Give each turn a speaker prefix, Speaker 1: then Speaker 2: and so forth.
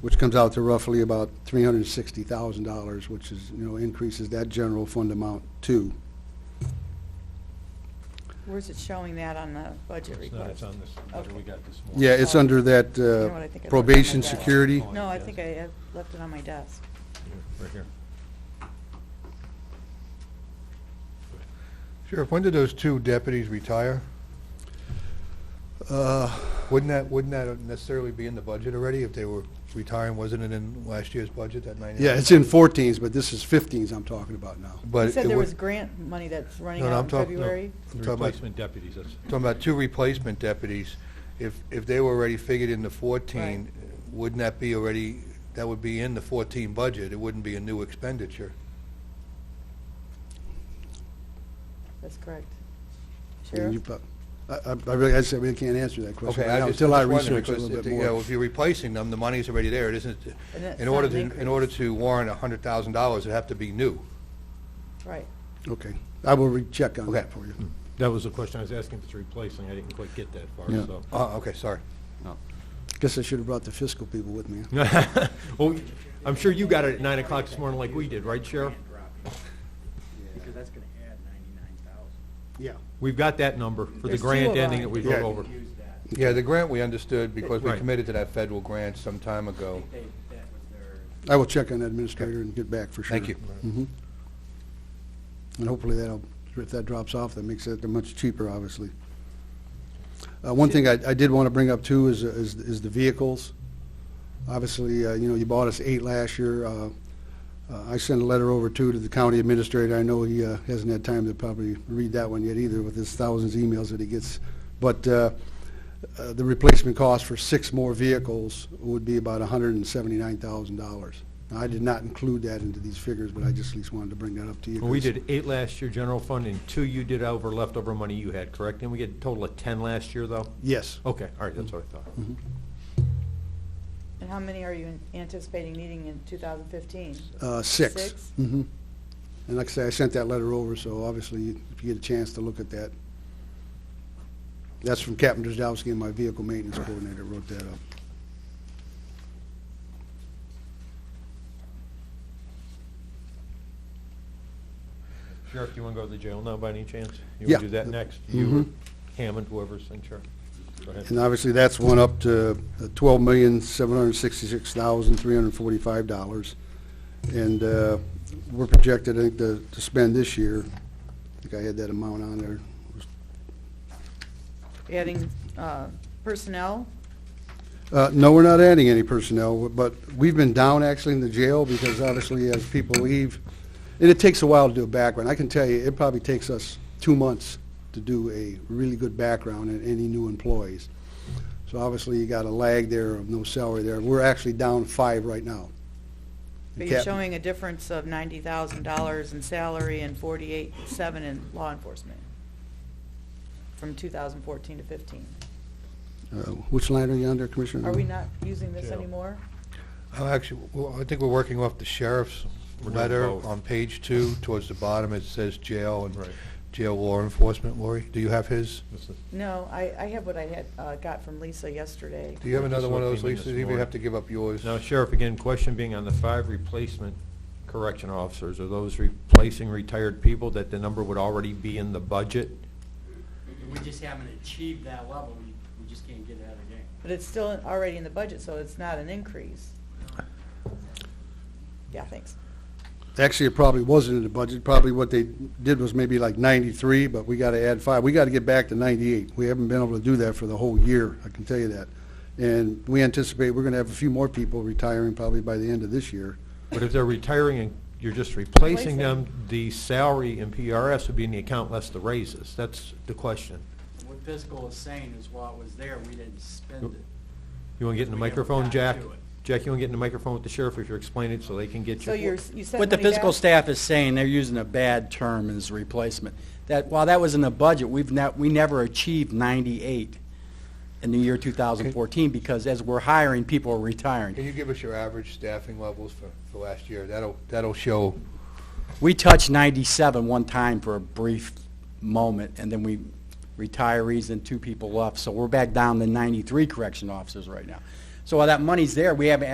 Speaker 1: which comes out to roughly about three hundred and sixty thousand dollars, which is, you know, increases that general fund amount too.
Speaker 2: Where's it showing that on the budget
Speaker 3: It's not,
Speaker 2: request?
Speaker 3: it's on this, letter we got this morning.
Speaker 1: Yeah, it's under that
Speaker 2: know what I
Speaker 1: uh,
Speaker 2: think I left on
Speaker 1: probation
Speaker 2: my desk?
Speaker 1: security.
Speaker 3: Oh,
Speaker 2: No, I
Speaker 3: yes.
Speaker 2: think I uh, left it on my desk.
Speaker 3: Right here.
Speaker 4: Sheriff, when did those two deputies retire?
Speaker 1: Uh,
Speaker 4: Wouldn't that, wouldn't that necessarily be in the budget already if they were retiring? Wasn't it in last year's budget, that ninety?
Speaker 1: Yeah, it's in fourteens, but this is fifteens I'm talking about now.
Speaker 4: But
Speaker 2: You said
Speaker 4: it
Speaker 2: there
Speaker 4: would-
Speaker 2: was grant money that's running
Speaker 4: No, no,
Speaker 2: out
Speaker 4: I'm
Speaker 2: in
Speaker 4: talking- no.
Speaker 2: February?
Speaker 4: I'm
Speaker 3: The
Speaker 4: talking about-
Speaker 3: Replacement deputies, that's,
Speaker 4: Talking about two replacement deputies, if, if they were already figured in the
Speaker 2: Right.
Speaker 4: fourteen, wouldn't that be already, that would be in the fourteen budget? It wouldn't be a new expenditure.
Speaker 2: That's correct.
Speaker 1: And you
Speaker 2: Sheriff?
Speaker 1: put- I, I- I really, I said, we can't answer that question
Speaker 4: Okay,
Speaker 1: right now
Speaker 4: I just,
Speaker 1: until I
Speaker 4: just wondering,
Speaker 1: research it a
Speaker 4: because,
Speaker 1: little
Speaker 4: if,
Speaker 1: bit
Speaker 4: you know,
Speaker 1: more.
Speaker 4: if you're replacing them, the money's already there, it isn't,
Speaker 2: And that's
Speaker 4: in
Speaker 2: not
Speaker 4: order
Speaker 2: an
Speaker 4: to, in
Speaker 2: increase.
Speaker 4: order to warrant a hundred thousand dollars, it'd have to be new.
Speaker 2: Right.
Speaker 1: Okay, I will recheck on that
Speaker 4: Okay.
Speaker 1: for you.
Speaker 3: that was the question I was asking, if it's replacing, I didn't quite get that far,
Speaker 1: Yeah.
Speaker 3: so.
Speaker 4: Uh, okay, sorry.
Speaker 1: Guess I should have brought the fiscal people with me.
Speaker 3: Well, I'm sure you got it at nine o'clock this morning like we did, right, Sheriff?
Speaker 5: Because that's gonna add ninety-nine thousand.
Speaker 1: Yeah.
Speaker 3: We've got that number for the
Speaker 2: There's two
Speaker 3: grant
Speaker 2: of
Speaker 3: ending that
Speaker 2: them.
Speaker 3: we
Speaker 4: Yeah.
Speaker 3: wrote over.
Speaker 5: Use that,
Speaker 4: Yeah, the grant we understood because we
Speaker 3: Right.
Speaker 4: committed to that federal grant some time ago.
Speaker 5: they, that was their.
Speaker 1: I will check on that administrator and get back for sure.
Speaker 4: Thank you.
Speaker 1: Mhm. And hopefully that'll, if that drops off, that makes it much cheaper, obviously. Uh, One thing I I did want to bring up too is, is is the vehicles. Obviously, uh, you know, you bought us eight last year. Uh, uh, I sent a letter over too to the county administrator. I know he uh, hasn't had time to probably read that one yet either with his thousands of emails that he gets. But uh, uh, the replacement cost for six more vehicles would be about $179,000. Now, I did not include that into these figures, but I just at least wanted to bring that up to you.
Speaker 3: Well, We
Speaker 1: 'cause-
Speaker 3: did eight last year, general fund, and two you did over leftover money you had, correct? And we get a total of ten last year, though?
Speaker 1: Yes.
Speaker 3: Okay, all right, that's what I
Speaker 1: Mm-hmm.
Speaker 3: thought.
Speaker 2: And how many are you an- anticipating needing in 2015?
Speaker 1: Uh, Six.
Speaker 2: Six?
Speaker 1: Mhm. And like I say, I sent that letter over, so obviously, if you get a chance to look at that. That's from Captain Drzdowski and my vehicle maintenance coordinator wrote that up.
Speaker 3: Sheriff, you want to go to the jail now by any chance?
Speaker 1: Mm-hmm.
Speaker 3: You
Speaker 1: Yeah.
Speaker 3: want to do that next? You,
Speaker 1: Mhm.
Speaker 3: or Hammond, whoever's in charge. Go ahead.
Speaker 1: And obviously, that's one up to uh, twelve million, seven hundred and sixty-six thousand, three hundred and forty-five dollars. And uh, we're projected, I think, to to spend this year, I think I had that amount on there,
Speaker 2: Adding uh, personnel?
Speaker 1: Uh, No, we're not adding any personnel, but we've been down actually in the jail because obviously as people leave, and it takes a while to do a background. I can tell you, it probably takes us two months to do a really good background on any new employees. So obviously you got a lag there of no salary there. We're actually down five right now.
Speaker 2: But you're
Speaker 1: Cap-
Speaker 2: showing a difference of $90,000 in salary and 48,7 in law enforcement from 2014 to 15.
Speaker 1: Uh, Which line are you under, Commissioner?
Speaker 2: Are we not using this
Speaker 3: Jail.
Speaker 2: anymore?
Speaker 4: I'm actually, well, I think we're working off the sheriff's
Speaker 3: We're doing
Speaker 4: letter
Speaker 3: both.
Speaker 4: on page two, towards the bottom, it says jail and
Speaker 3: Right.
Speaker 4: jail law enforcement, Lori. Do you have his?
Speaker 3: This is-
Speaker 2: No, I, I have what I had, uh, got from Lisa yesterday.
Speaker 4: Do you have
Speaker 3: This
Speaker 4: another
Speaker 3: one
Speaker 4: one of those
Speaker 3: came in
Speaker 4: leases?
Speaker 3: this
Speaker 4: You may
Speaker 3: morning.
Speaker 4: have to give up yours.
Speaker 3: Now, Sheriff, again, question being on the five replacement correction officers, are those replacing retired people that the number would already be in the budget?
Speaker 5: We just haven't achieved that level, we, we just can't get it out of the game.
Speaker 2: But it's still already in the budget, so it's not an increase. Yeah, thanks.
Speaker 1: Actually, it probably wasn't in the budget. Probably what they did was maybe like 93, but we got to add five. We got to get back to 98. We haven't been able to do that for the whole year, I can tell you that. And we anticipate we're going to have a few more people retiring probably by the end of this year.
Speaker 3: But if they're retiring and you're just
Speaker 2: Replacing.
Speaker 3: replacing them, the salary in PRS would be in the account less the raises. That's the question.
Speaker 5: What fiscal is saying is while it was there, we didn't spend it.
Speaker 3: You want to get in the
Speaker 5: We never
Speaker 3: microphone,
Speaker 5: got
Speaker 3: Jack?
Speaker 5: to it.
Speaker 3: Jack, you want to get in the microphone with the sheriff if you're explaining it so they can get you?
Speaker 2: So you're, you said.
Speaker 5: What the
Speaker 2: money back-
Speaker 5: fiscal staff is saying, they're using a bad term as replacement. That, while that was in the budget, we've not, we never achieved ninety-eight in the year two thousand fourteen, because as we're hiring, people are retiring.
Speaker 4: Can you give us your average staffing levels for, for last year? That'll, that'll show,
Speaker 5: We touched 97 one time for a brief moment, and then we retirees and two people left, so we're back down to 93 correction officers right now. So while that money's there, we haven't